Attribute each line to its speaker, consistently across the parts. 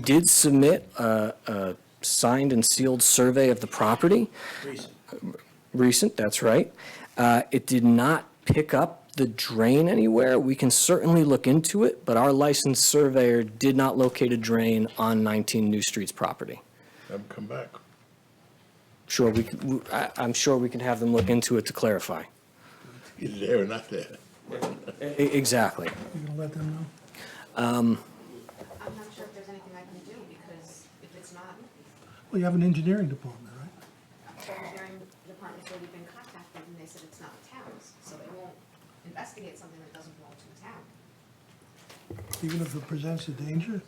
Speaker 1: did submit a, a signed and sealed survey of the property.
Speaker 2: Recent.
Speaker 1: Recent, that's right. Uh, It did not pick up the drain anywhere. We can certainly look into it, but our licensed surveyor did not locate a drain on 19 New Street's property.
Speaker 2: Have them come back.
Speaker 1: Sure, we, could- w- I- I'm sure we can have them look into it to clarify.
Speaker 2: Either there or not there.
Speaker 1: E- Exactly.
Speaker 3: You gonna let them know?
Speaker 4: I'm not sure if there's anything I can do, because if it's not,
Speaker 3: Well, you have an engineering department, right?
Speaker 4: the engineering department said we've been contacted, and they said it's not the town's, so they won't investigate something that doesn't belong to the town.
Speaker 3: Even if it presents a danger?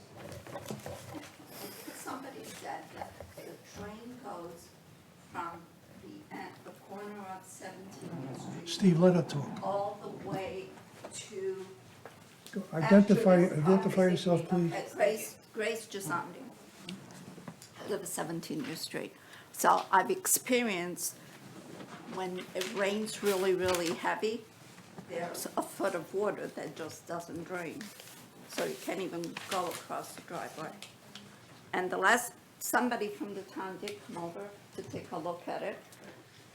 Speaker 5: Somebody said that the train goes from the, end- the corner of Seventeenth Street.
Speaker 3: Steve, let her talk.
Speaker 5: All the way to.
Speaker 3: Go- Identify,
Speaker 5: Actually, this
Speaker 3: identify
Speaker 5: conversation-
Speaker 3: yourself, please.
Speaker 5: Okay, Grace, Grace Gisondi. I live at Seventeenth Street. So I've experienced when it rains really, really heavy, there's a foot of water that just doesn't drain. So you can't even go across the driveway. And the last, somebody from the town did come over to take a look at it.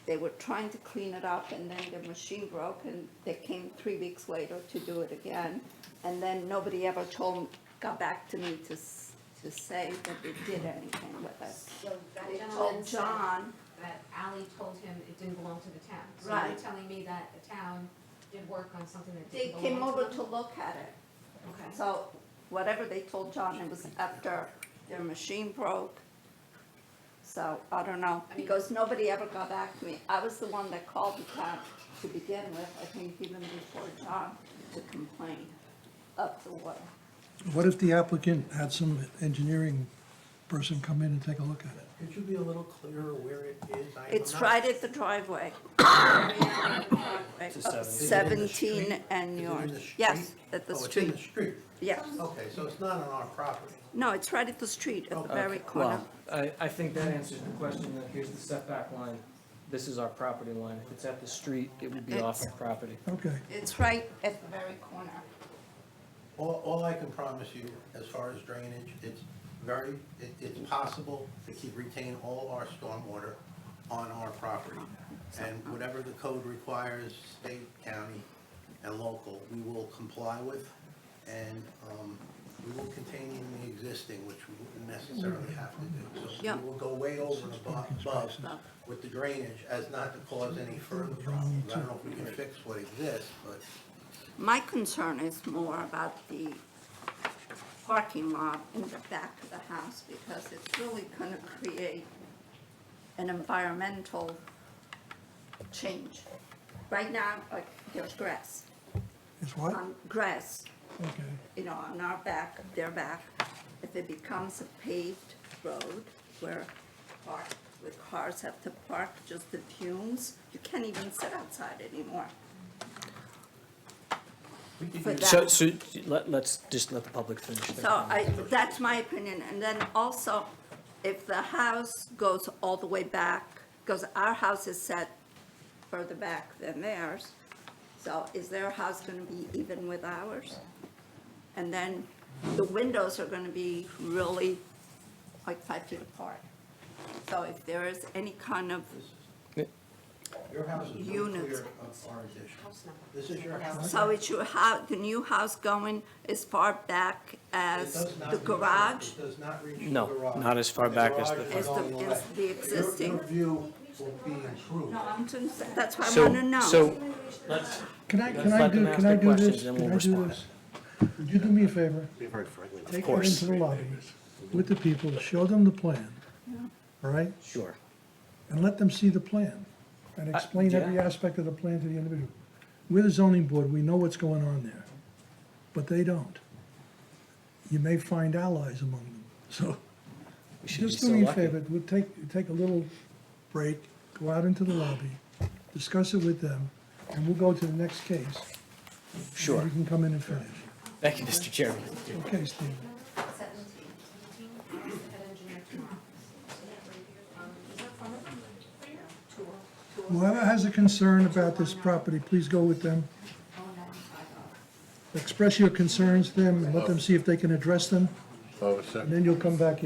Speaker 5: They were trying to clean it up and then the machine broke and they came three weeks later to do it again. And then nobody ever told, got back to me to, s- to say that they did anything with it.
Speaker 4: So that
Speaker 5: They
Speaker 4: gentleman
Speaker 5: told
Speaker 4: said
Speaker 5: John,
Speaker 4: that Ally told him it didn't belong to the town. So
Speaker 5: Right.
Speaker 4: you're telling me that the town did work on something that
Speaker 5: they
Speaker 4: didn't
Speaker 5: came
Speaker 4: belong
Speaker 5: over
Speaker 4: to
Speaker 5: to
Speaker 4: them?
Speaker 5: look at it.
Speaker 4: Okay.
Speaker 5: So whatever they told John, it was after their machine broke. So I don't know, because nobody ever got back to me. I was the one that called the town to begin with, I think even before John, to complain of the water.
Speaker 3: What if the applicant had some engineering person come in and take a look at it?
Speaker 6: Could you be a little clearer where it is? I am
Speaker 5: It's
Speaker 6: not-
Speaker 5: right at the driveway. Of Seventeen and
Speaker 6: Is it in the
Speaker 5: yours.
Speaker 6: street?
Speaker 5: Yes, at the
Speaker 6: Oh, it's in the
Speaker 5: street,
Speaker 6: street. Oh.
Speaker 5: yes.
Speaker 6: Okay, so it's not on our property.
Speaker 5: No, it's right at the street, at the very corner.
Speaker 1: Well, I, I think that answers the question, that here's the setback line. This is our property line. If it's at the street, it would be off our property.
Speaker 3: Okay,
Speaker 5: It's right at the very corner.
Speaker 6: All, all I can promise you, as far as drainage, it's very, it, it's possible to keep, retain all our stormwater on our property. And whatever the code requires, state, county, and local, we will comply with. And, um, we will contain the existing, which we wouldn't necessarily have to do. So
Speaker 5: Yeah.
Speaker 6: we will go way over and abo- above with the drainage as not to cause any further problems. I don't know if we can fix what exists, but
Speaker 5: My concern is more about the parking lot in the back of the house because it's really going to create an environmental change. Right now, like, there's grass,
Speaker 3: it's what?
Speaker 5: um, grass,
Speaker 3: Okay.
Speaker 5: you know, on our back, their back. If it becomes a paved road where park, where cars have to park, just the fumes, you can't even sit outside anymore. For that.
Speaker 1: So, so let, let's just let the public finish their
Speaker 5: So
Speaker 1: comment.
Speaker 5: I, that's my opinion, and then also, if the house goes all the way back, because our house is set further back than theirs, so is their house gonna be even with ours? And then the windows are gonna be really like five feet apart. So if there is any kind of,
Speaker 6: your house is no
Speaker 5: Units.
Speaker 6: clear of our addition.
Speaker 4: House number.
Speaker 6: This is your house.
Speaker 5: so it's your hou, the new house going as far back as
Speaker 6: It does not
Speaker 5: the
Speaker 6: reach-
Speaker 5: garage?
Speaker 6: It does not reach the
Speaker 1: No,
Speaker 6: garage.
Speaker 1: not as far back as the-
Speaker 6: garage is
Speaker 5: As the-
Speaker 6: going
Speaker 5: as
Speaker 6: away.
Speaker 5: the
Speaker 6: Your-
Speaker 5: existing.
Speaker 6: Your view will be improved.
Speaker 5: No, I'm just, that's what I
Speaker 1: So-
Speaker 5: wanna know.
Speaker 1: So, let's,
Speaker 3: Can I,
Speaker 1: Let's
Speaker 3: can I
Speaker 1: let
Speaker 3: do,
Speaker 1: them ask
Speaker 3: can I
Speaker 1: their
Speaker 3: do
Speaker 1: questions,
Speaker 3: this?
Speaker 1: then
Speaker 3: Can
Speaker 1: we'll
Speaker 3: I do
Speaker 1: respond.
Speaker 3: this? Would you do me a favor?
Speaker 7: Be very friendly.
Speaker 3: Take her
Speaker 1: course.
Speaker 3: into the lobby with the people, show them the plan, all right?
Speaker 1: sure. Uh,
Speaker 3: and let them see the plan, and explain every
Speaker 1: yeah.
Speaker 3: aspect of the plan to the individual. We're the zoning board, we know what's going on there, but they don't. You may find allies among them, so
Speaker 1: We should be
Speaker 3: just
Speaker 1: so
Speaker 3: do me a
Speaker 1: lucky.
Speaker 3: favor, we'll take, take a little break, go out into the lobby, discuss it with them, and we'll go to the next case.
Speaker 1: Sure.
Speaker 3: We can come in and finish.
Speaker 1: Thank you, Mr. Chairman.
Speaker 3: Okay, Steve.
Speaker 4: Seventeen. Seventeen, the head engineer tomorrow. Um, is that from it? Tour. Tour.
Speaker 3: Whoever has a concern about this property, please go with them. Express your concerns to them and let them see if they can address them.
Speaker 2: All of a sudden.
Speaker 3: and then you'll come back in.